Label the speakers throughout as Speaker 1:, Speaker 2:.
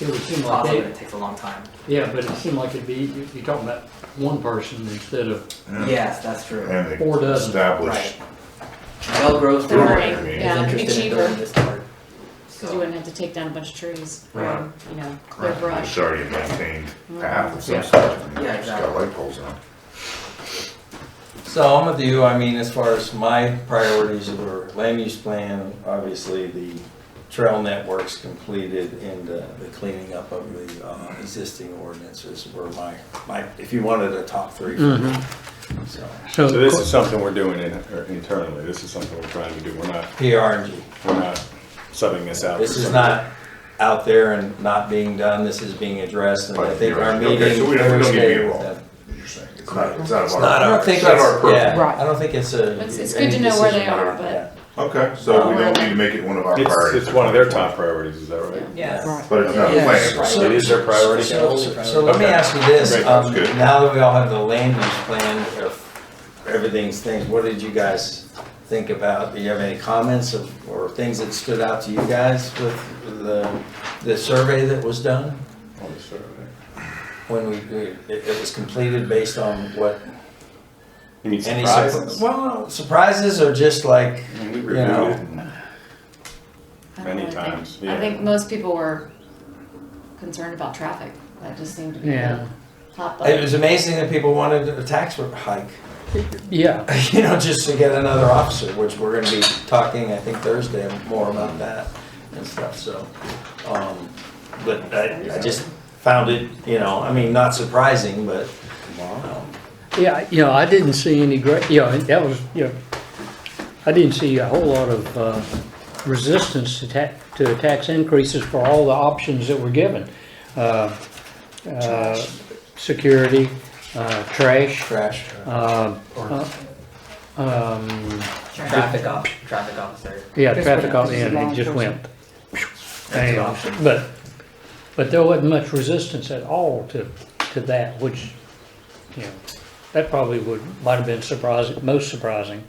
Speaker 1: It would seem like
Speaker 2: Lots of it
Speaker 1: that,
Speaker 2: takes a long time.
Speaker 1: yeah, but it seemed like it'd be, you- you're talking about one person instead of,
Speaker 2: Yes, that's true.
Speaker 3: And
Speaker 1: Four
Speaker 3: they
Speaker 1: dozen.
Speaker 3: established
Speaker 2: Right. Bell Grove's the one
Speaker 3: Right,
Speaker 2: who's
Speaker 3: yeah,
Speaker 4: it'd be
Speaker 2: interested in
Speaker 4: cheaper.
Speaker 2: building this part.
Speaker 4: Because you
Speaker 2: So,
Speaker 4: wouldn't have to take down a bunch of trees,
Speaker 1: Right.
Speaker 4: or, you know, clear
Speaker 3: it's
Speaker 4: brush.
Speaker 3: already a maintained path of some
Speaker 1: Yeah.
Speaker 3: sort.
Speaker 2: Yeah,
Speaker 3: It's got
Speaker 2: exactly.
Speaker 3: light poles on it.
Speaker 5: So I'm with you, I mean, as far as my priorities were land use plan, obviously the trail networks completed and uh, the cleaning up of the uh, existing ordinances were my, my, if you wanted a top three for me. So,
Speaker 1: so.
Speaker 6: So this is something we're doing in,
Speaker 3: er,
Speaker 6: or internally, this is something we're trying to do, we're not,
Speaker 5: PR and G.
Speaker 6: we're not subbing this out.
Speaker 5: This is not out there and not being done, this is being addressed, and I think our
Speaker 3: Right, okay,
Speaker 5: meeting
Speaker 3: so we don't- we don't get
Speaker 5: Thursday
Speaker 3: involved.
Speaker 5: with them.
Speaker 3: You're saying It's not, it's not
Speaker 5: It's not
Speaker 3: our,
Speaker 5: our,
Speaker 3: it's not our purview.
Speaker 5: yeah, I don't think it's a.
Speaker 4: It's, it's good to know where they are, but,
Speaker 3: Okay, so we don't need to make it one of our
Speaker 6: It's,
Speaker 3: priorities.
Speaker 6: it's one of their top priorities, is that right?
Speaker 5: Yes.
Speaker 3: But it's not a
Speaker 5: Yes.
Speaker 3: plan.
Speaker 5: So-
Speaker 6: It is their priority.
Speaker 5: So, so let me
Speaker 3: Okay.
Speaker 5: ask you this,
Speaker 6: Great,
Speaker 5: um,
Speaker 3: that's good.
Speaker 5: now that we all have the land use plan, if everything's things, what did you guys think about? Do you have any comments of, or things that stood out to you guys with the, the survey that was done?
Speaker 6: On the survey.
Speaker 5: When we, it, it was completed based on what?
Speaker 6: You mean
Speaker 5: any surpri-
Speaker 6: surprises?
Speaker 5: Well, surprises are just like,
Speaker 6: I mean, we
Speaker 5: you
Speaker 6: reviewed it
Speaker 5: know.
Speaker 6: and
Speaker 4: I don't
Speaker 6: Many
Speaker 4: know, I think-
Speaker 6: times,
Speaker 4: I
Speaker 6: yeah.
Speaker 4: think most people were concerned about traffic, that just seemed to be
Speaker 1: Yeah.
Speaker 4: the top
Speaker 5: It
Speaker 4: button.
Speaker 5: was amazing that people wanted a tax hike,
Speaker 1: Yeah,
Speaker 5: you know, just to get another officer, which we're gonna be talking, I think Thursday, more about that and stuff, so. um, But I, I just found it, you know, I mean, not surprising, but, um,
Speaker 1: yeah, you know, I didn't see any great, you know, and that was, you know, I didn't see a whole lot of, uh, resistance to tax, to tax increases for all the options that were given. Uh, uh, Security, uh, trash,
Speaker 5: trash.
Speaker 1: uh, uh, um,
Speaker 2: Traffic op, traffic officer.
Speaker 1: Yeah,
Speaker 7: Just
Speaker 1: traffic
Speaker 7: went
Speaker 1: on
Speaker 7: up.
Speaker 1: the
Speaker 7: This is
Speaker 1: end,
Speaker 7: a
Speaker 1: it
Speaker 7: long
Speaker 1: just
Speaker 7: person.
Speaker 1: went. Bam. But, but there wasn't much resistance at all to, to that, which, you know, that probably would, might have been surprising, most surprising.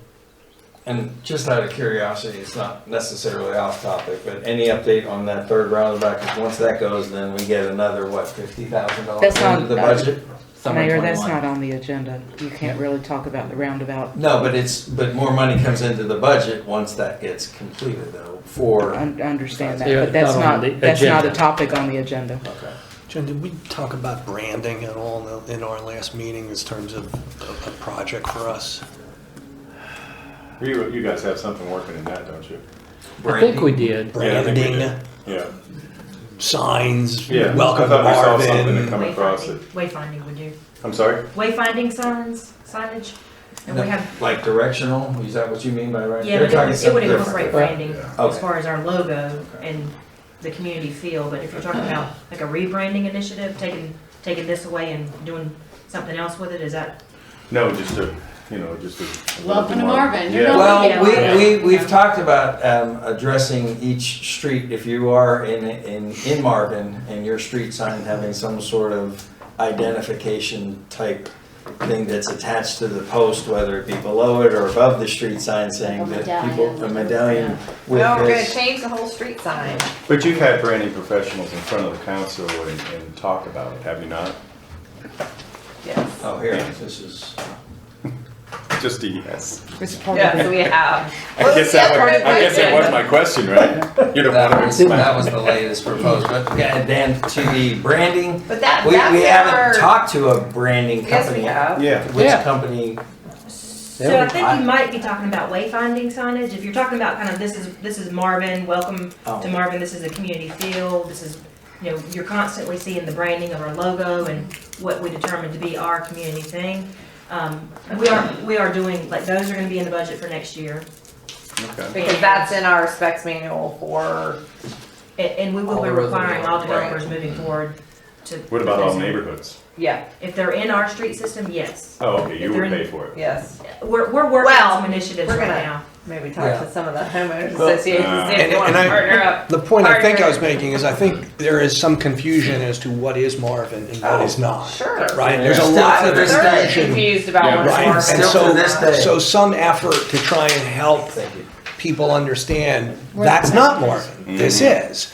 Speaker 5: And just out of curiosity, it's not necessarily off topic, but any update on that third roundabout? Because once that goes, then we get another, what, fifty thousand dollars
Speaker 7: That's not-
Speaker 5: into the budget?
Speaker 2: Summer
Speaker 7: Mayor, that's
Speaker 2: 21.
Speaker 7: not on the agenda. You can't really talk about the roundabout.
Speaker 5: No, but it's, but more money comes into the budget once that gets completed though, for,
Speaker 7: I un- understand
Speaker 1: Yeah,
Speaker 7: that,
Speaker 1: it's
Speaker 7: but that's
Speaker 1: not on
Speaker 7: not,
Speaker 1: the
Speaker 7: that's not a
Speaker 1: agenda.
Speaker 7: topic on the agenda.
Speaker 5: okay.
Speaker 8: Jen, did we talk about branding at all in- in our last meeting in terms of a a project for us?
Speaker 6: You, you guys have something working in that, don't you?
Speaker 1: I think we did.
Speaker 6: Yeah, I think we did.
Speaker 8: Branding,
Speaker 6: Yeah.
Speaker 8: signs,
Speaker 6: Yeah.
Speaker 8: welcome to
Speaker 6: I thought we saw something that
Speaker 8: Marvin.
Speaker 6: come across it.
Speaker 9: Wayfinding, would you?
Speaker 6: I'm sorry?
Speaker 9: Wayfinding signs, signage? And we have,
Speaker 5: Like directional, is that what you mean by right?
Speaker 9: yeah,
Speaker 5: You're
Speaker 9: but
Speaker 5: talking
Speaker 9: it would- it would
Speaker 5: something
Speaker 9: incorporate
Speaker 5: different.
Speaker 9: branding
Speaker 5: Okay.
Speaker 9: as far as our logo and the community feel, but if you're talking about like a rebranding initiative, taking, taking this away and doing something else with it, is that?
Speaker 6: No, just a, you know, just a. a
Speaker 4: Welcome to
Speaker 6: little bit more-
Speaker 4: Marvin. You're
Speaker 6: Yeah.
Speaker 4: not- Yeah.
Speaker 5: Well, we, we, we've
Speaker 9: Yeah.
Speaker 5: talked about, um, addressing each street, if you are in, in, in Marvin, and your street sign having some sort of identification type thing that's attached to the post, whether it be below it or above the street sign saying
Speaker 4: A
Speaker 5: that people, a
Speaker 4: medallion.
Speaker 5: medallion with
Speaker 9: Oh,
Speaker 10: No, we're gonna
Speaker 5: this.
Speaker 10: change the whole street sign.
Speaker 6: But you've had branding professionals in front of the council and, and talk about it, have you not?
Speaker 10: Yes.
Speaker 5: Oh, here, this is.
Speaker 6: Just a yes.
Speaker 7: It's part of
Speaker 10: Yes,
Speaker 7: the,
Speaker 10: we have.
Speaker 6: I guess that was, I guess that was my question, right? You don't want
Speaker 5: That
Speaker 6: to
Speaker 5: was,
Speaker 6: explain.
Speaker 5: that was the latest proposed, but yeah, Dan, to the branding,
Speaker 10: But that,
Speaker 5: we, we haven't
Speaker 10: that's our.
Speaker 5: talked to a branding
Speaker 10: Yes,
Speaker 5: company.
Speaker 10: we have.
Speaker 6: Yeah,
Speaker 5: Which
Speaker 1: Yeah.
Speaker 5: company,
Speaker 9: So I think you might be talking about wayfinding signage, if you're talking about kind of this is, this is Marvin, welcome
Speaker 5: Oh.
Speaker 9: to Marvin, this is a community feel, this is, you know, you're constantly seeing the branding of our logo and what we determined to be our community thing. Um, we are, we are doing, like, those are gonna be in the budget for next year,
Speaker 6: okay.
Speaker 10: Because that's in our specs manual for,
Speaker 9: and, and we will
Speaker 10: All
Speaker 9: be
Speaker 10: the roads are
Speaker 9: requiring all
Speaker 10: built,
Speaker 9: developers moving forward to.
Speaker 6: What about all neighborhoods?
Speaker 10: yeah,
Speaker 9: If they're in our street system, yes.
Speaker 6: Oh, okay, you
Speaker 9: If they're
Speaker 6: would
Speaker 9: in-
Speaker 6: pay for it.
Speaker 10: yes.
Speaker 9: We're, we're working
Speaker 10: Well,
Speaker 9: on some initiatives
Speaker 10: we're
Speaker 9: right
Speaker 10: gonna-
Speaker 9: now.
Speaker 10: Maybe
Speaker 5: Yeah.
Speaker 10: talk to some of the homeowners
Speaker 6: Well,
Speaker 10: associations, see if
Speaker 8: And-
Speaker 10: they wanna
Speaker 8: and I-
Speaker 10: partner up.
Speaker 8: The point I think I was making is I think there is some confusion as to what is Marvin and
Speaker 6: Oh,
Speaker 8: what is not.
Speaker 10: Sure.
Speaker 8: Right? There's a
Speaker 5: Still
Speaker 8: lot
Speaker 5: to
Speaker 8: of
Speaker 5: this day.
Speaker 10: They're
Speaker 8: confusion.
Speaker 10: confused about what's
Speaker 8: Right?
Speaker 10: Marvin.
Speaker 8: And
Speaker 5: Still to
Speaker 8: so-
Speaker 5: this day.
Speaker 8: So some effort to try and help
Speaker 5: thank you.
Speaker 6: Mm-hmm.
Speaker 8: people understand, that's not Marvin, this is.